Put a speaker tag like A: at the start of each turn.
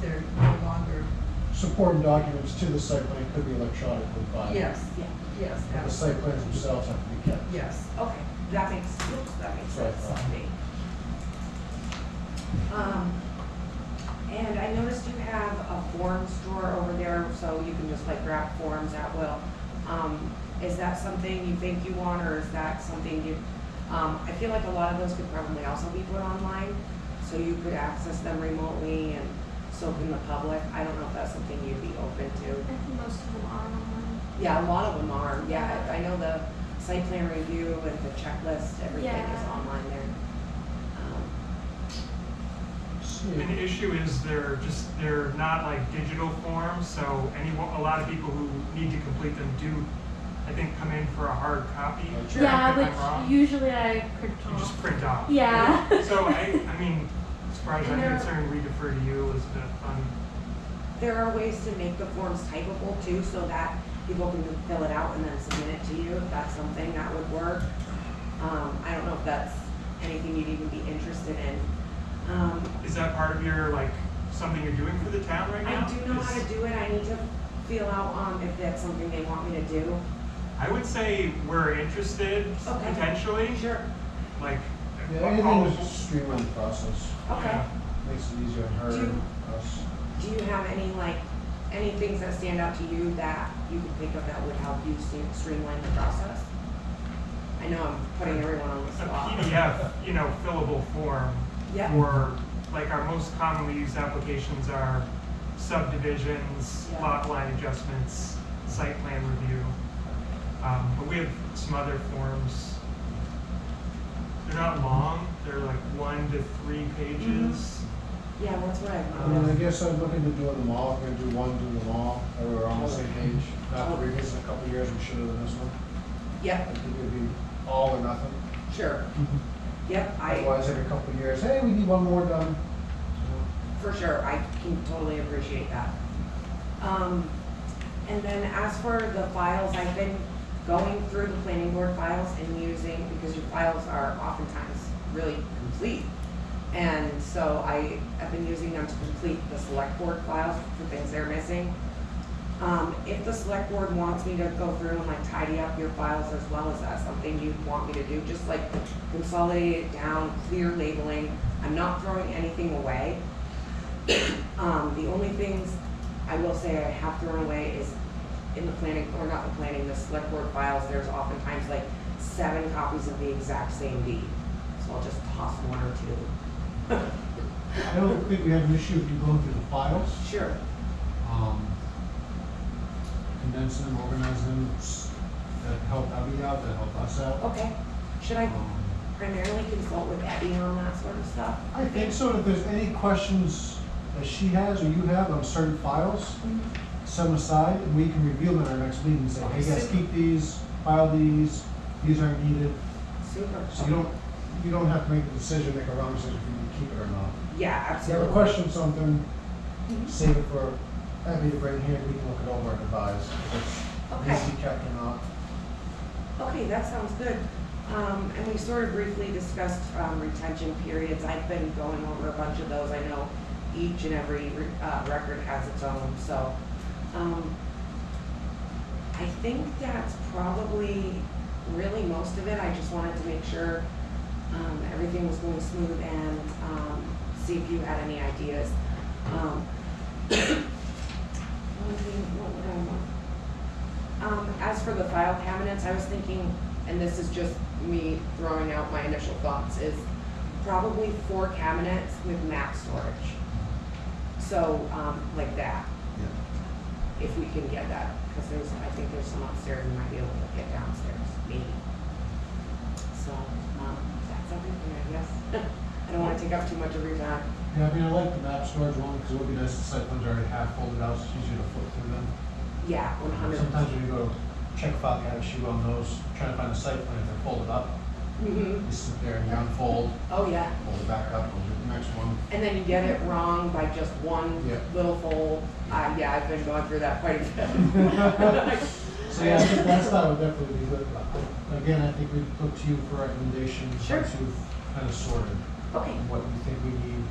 A: they're no longer,
B: Supporting documents to the site plan could be electronically filed.
A: yes,
C: Yeah,
A: yes,
B: But the
A: absolutely,
B: site plans themselves have to be kept.
A: yes.
C: okay, that makes, oops, that makes
B: Sorry.
C: sense to me. Um, and I noticed you have a forms drawer over there, so you can just like grab forms at will. Um, is that something you think you want, or is that something you, um, I feel like a lot of those could probably also be put online, so you could access them remotely and so can the public. I don't know if that's something you'd be open to.
D: I think most of them are online.
C: Yeah, a lot of them are, yeah, I know the site plan review and the checklist, everything is
D: Yeah.
C: online there. Um,
E: An
B: See,
E: issue is they're just, they're not like digital forms, so any, a lot of people who need to complete them do, I think, come in for a hard copy.
B: Sure,
D: Yeah,
E: Am I wrong?
D: which usually I print
E: You just
D: off.
E: print off.
D: Yeah.
E: So I, I mean, as far as I'm
D: And they're-
E: concerned, we defer to you, Elizabeth, on
C: There are ways to make the forms typable too, so that people can fill it out and then submit it to you, if that's something that would work. Um, I don't know if that's anything you'd even be interested in. Um,
E: Is that part of your, like, something you're doing for the town right now?
C: I do know how
E: Is-
C: to do it, I need to feel out, um, if that's something they want me to do.
E: I would say we're interested,
C: Okay.
E: potentially,
C: Sure.
E: like,
B: Yeah,
E: all-
B: anything to streamline the process,
C: Okay.
B: makes it easier on her
C: Do-
B: and us.
C: Do you have any, like, any things that stand out to you that you can think of that would help you st- streamline the process? I know I'm putting everyone on the
E: a
C: spot.
E: PDF, you know, fillable form.
C: Yeah,
E: Or, like, our most commonly used applications are subdivisions,
C: Yeah.
E: lot line adjustments, site plan review. Um, but we have some other forms. They're not long, they're like one to three
C: Mm-hmm.
E: pages.
C: yeah, that's what
B: I
C: I,
E: Um,
B: mean, I guess I'm looking to doing them all, if we're gonna do one, do them all, or we're on the same page. Not to revisit in a couple of years, we should have done this one. I
C: yep,
B: think it'd be all or nothing.
C: sure. Yep, I,
B: Otherwise, every couple of years, hey, we need one more done.
C: for sure, I can totally appreciate that. Um, and then as for the files, I've been going through the planning board files and using, because your files are oftentimes really complete. And so I have been using them to complete the select board files for things they're missing. Um, if the select board wants me to go through and like tidy up your files as well, is that something you'd want me to do? Just like consolidate it down, clear labeling. I'm not throwing anything away. Um, the only things I will say I have thrown away is in the planning, or not the planning, the select board files, there's oftentimes like seven copies of the exact same deed. So I'll just toss one or two.
B: I don't think we have an issue if you go through the files.
C: Sure.
B: um, condense them, organize them, s- that help Abby out, that help us out.
C: Okay. Should I
B: Um,
C: primarily consult with Abby on that sort of stuff?
B: I think so, if there's any questions that she has or you have on certain files,
C: Mm-hmm.
B: set them aside, and we can review them at our next meeting, and say, hey, guys, keep these, file these, these aren't needed,
C: Super.
B: so you don't, you don't have to make the decision, make a wrong decision if you need to keep it or not.
C: Yeah,
B: If you have
C: absolutely. Mm-hmm.
B: a question, something, save it for Abby to bring here, we can look it over and advise, if
C: Okay.
B: it's easy kept or not.
C: Okay, that sounds good. Um, and we sort of briefly discussed, um, retention periods. I've been going over a bunch of those. I know each and every, re- uh, record has its own, so, um, I think that's probably really most of it. I just wanted to make sure, um, everything was going smooth and, um, see if you had any ideas. Um, one thing- what would I want? Um, as for the file cabinets, I was thinking, and this is just me throwing out my initial thoughts, is probably four cabinets with map storage. So, um, like that,
B: Yeah.
C: if we can get that, because there's, I think there's some upstairs we might be able to get downstairs, maybe. So, um, that's everything, I guess. I don't wanna take up too much of your time.
B: Yeah, I mean, I like the map storage one, because it would be nice to site ones already half folded out, so it's easier to flip through them.
C: Yeah, one hundred.
B: Sometimes when you go check file cabinet, you on those, trying to find a site plan, if they're folded up,
C: Mm-hmm,
B: you sit there and you unfold,
C: oh, yeah.
B: fold it back up, go to the next one.
C: And then you get it wrong by just one
B: Yeah.
C: little fold. Uh, yeah, I've been going through that quite a bit.
B: So yeah, I think that style would definitely be good. But Again, I think we'd look to you for recommendations,
C: Sure.
B: once you've kind of sorted
C: Okay,
B: what you think we need,